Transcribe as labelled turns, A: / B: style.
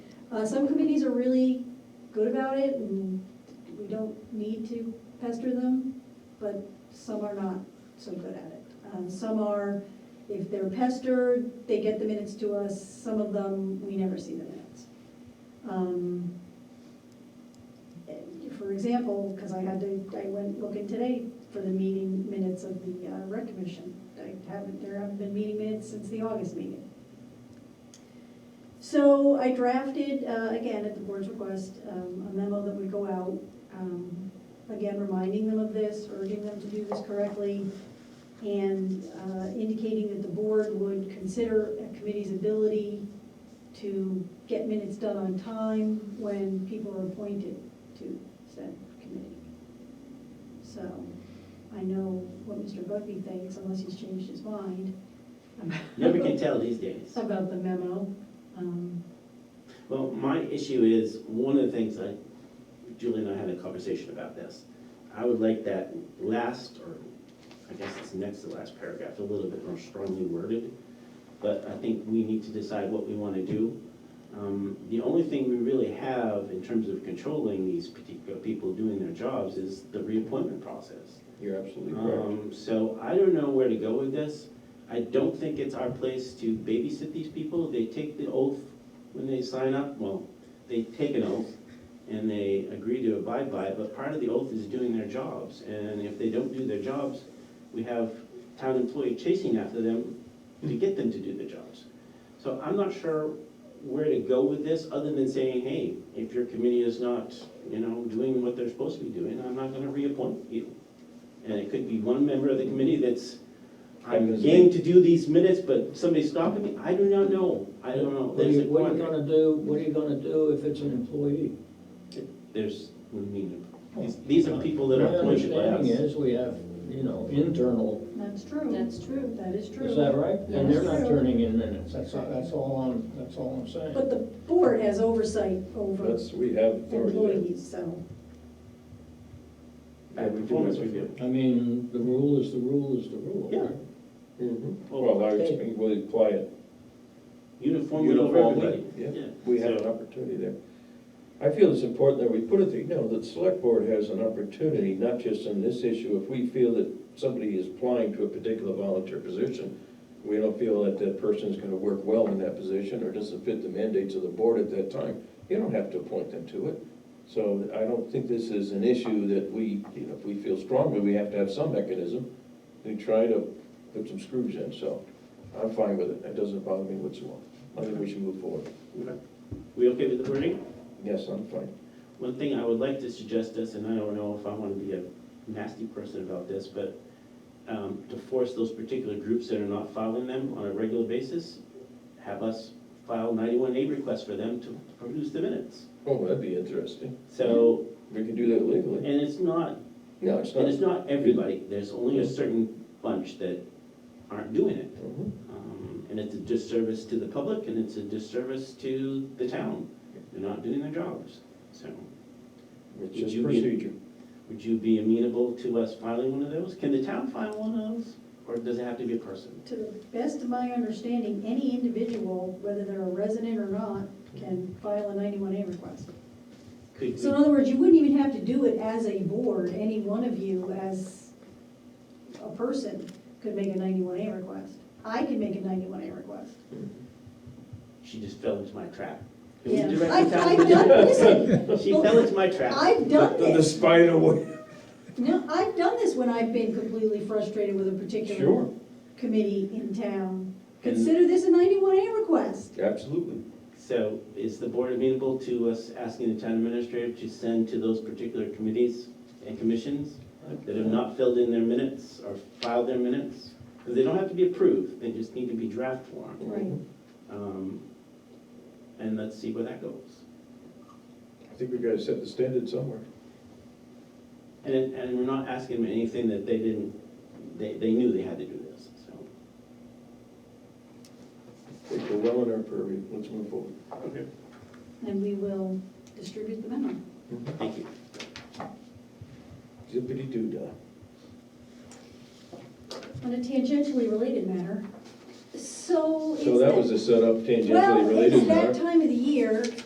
A: Uh, some committees are really good about it and we don't need to pester them, but some are not so good at it. Um, some are, if they're pestered, they get the minutes to us, some of them, we never see the minutes. Um, and For example, because I had to, I went looking today for the meeting minutes of the uh, rec commission. I haven't, there haven't been meeting minutes since the August meeting. So I drafted, uh, again, at the board's request, um, a memo that would go out, um, again, reminding them of this, urging them to do this correctly, and uh, indicating that the board would consider a committee's ability to get minutes done on time when people are appointed to said committee. So I know what Mr. Bugby thinks, unless he's changed his mind.
B: Never can tell these days.
A: About the memo. um,
B: Well, my issue is, one of the things I, Julie and I had a conversation about this. I would like that last, or I guess it's next to last paragraph, a little bit more strongly worded. But I think we need to decide what we want to do. Um, The only thing we really have in terms of controlling these particular people doing their jobs is the reappointment process.
C: You're absolutely correct.
B: Um, so I don't know where to go with this. I don't think it's our place to babysit these people. They take the oath when they sign up, well, they take an oath and they agree to abide by it, but part of the oath is doing their jobs. And if they don't do their jobs, we have town employee chasing after them to get them to do their jobs. So I'm not sure where to go with this, other than saying, hey, if your committee is not, you know, doing what they're supposed to be doing, I'm not gonna reappoint you. And it could be one member of the committee that's, I'm game to do these minutes, but somebody's stopping me, I do not know, I don't know.
D: What are
B: There's a
D: you, what are you
B: quandary.
D: gonna do, what are you gonna do if it's an employee?
B: There's, I mean, these- these are people that
D: Oh, My
B: are appointed by
D: understanding
B: us.
D: is we have, you know, internal,
A: That's true.
E: That's true.
A: That is true.
D: is that right? And they're not
A: Yes.
D: turning in minutes, that's, all- that's all I'm, that's all I'm saying.
A: But the board has oversight over
C: That's, we have authority
A: employees, so.
C: Yeah, we do
B: Performance
C: it.
B: review.
D: I mean, the rule is the rule is the rule.
B: Yeah.
D: right?
C: there.
B: Mm-hmm.
C: Well, I expect we apply it.
B: Uniformly over
C: Uniformly,
B: everybody.
C: yeah. We have an
B: So,
C: opportunity there. I feel it's important that we put it, there. you know, that select board has an opportunity, not just in this issue. If we feel that somebody is applying to a particular volunteer position, we don't feel that that person's gonna work well in that position or doesn't fit the mandates of the board at that time, you don't have to appoint them to it. So I don't think this is an issue that we, you know, if we feel strongly, we have to have some mechanism to try to put some screws in, so I'm fine with it. It doesn't bother me whatsoever. I think we should move forward.
B: okay. We okay with the wording?
C: Yes, I'm fine.
B: One thing I would like to suggest is, and I don't know if I want to be a nasty person about this, but um, to force those particular groups that are not filing them on a regular basis, have us file 91A requests for them to produce the minutes.
C: Oh, that'd be interesting.
B: So,
C: We could do that
B: and
C: legally.
B: it's not
C: No, it's
B: And
C: not.
B: it's not everybody, there's only a certain bunch that aren't doing it.
C: Mhm.
B: Um, And it's a disservice to the public, and it's a disservice to the town. They're not doing their jobs. So, Would
C: It's just
B: you be-
C: procedure.
B: would you be amenable to us filing one of those? Can the town file one of those, or does it have to be a person?
A: To the best of my understanding, any individual, whether they're a resident or not, can file a 91A request.
B: Could
A: So in
B: we,
A: other words, you wouldn't even have to do it as a board, any one of you as a person could make a 91A request. I could make a 91A request.
B: she just fell into my trap. Can we
A: Yeah,
B: direct the
A: I've,
B: town
A: I've
B: to do
A: done,
B: that?
A: listen,
B: She fell into my trap.
A: I've done
C: The- The
A: this.
C: spider web.
A: No, I've done this when I've been completely frustrated with a particular
C: Sure,
A: committee in town.
B: And-
A: Consider this a 91A request.
C: absolutely.
B: So is the board amenable to us asking the town administrator to send to those particular committees and commissions that have not filled in their minutes or filed their minutes? Because they don't have to be approved, they just need to be draft form.
A: Right.
B: Um, And let's see where that goes.
C: I think we gotta set the standard somewhere.
B: And, it- and we're not asking them anything that they didn't, they, they knew they had to do this, so.
C: I think we're well in our purview. Let's move forward.
B: Okay.
A: And we will distribute the memo.
B: Thank you.
C: Zippity doo dah.
A: On a tangentially related matter, so it's.
C: So that was a setup tangentially related.
A: Well,
C: Mark.
A: it's that time of the year,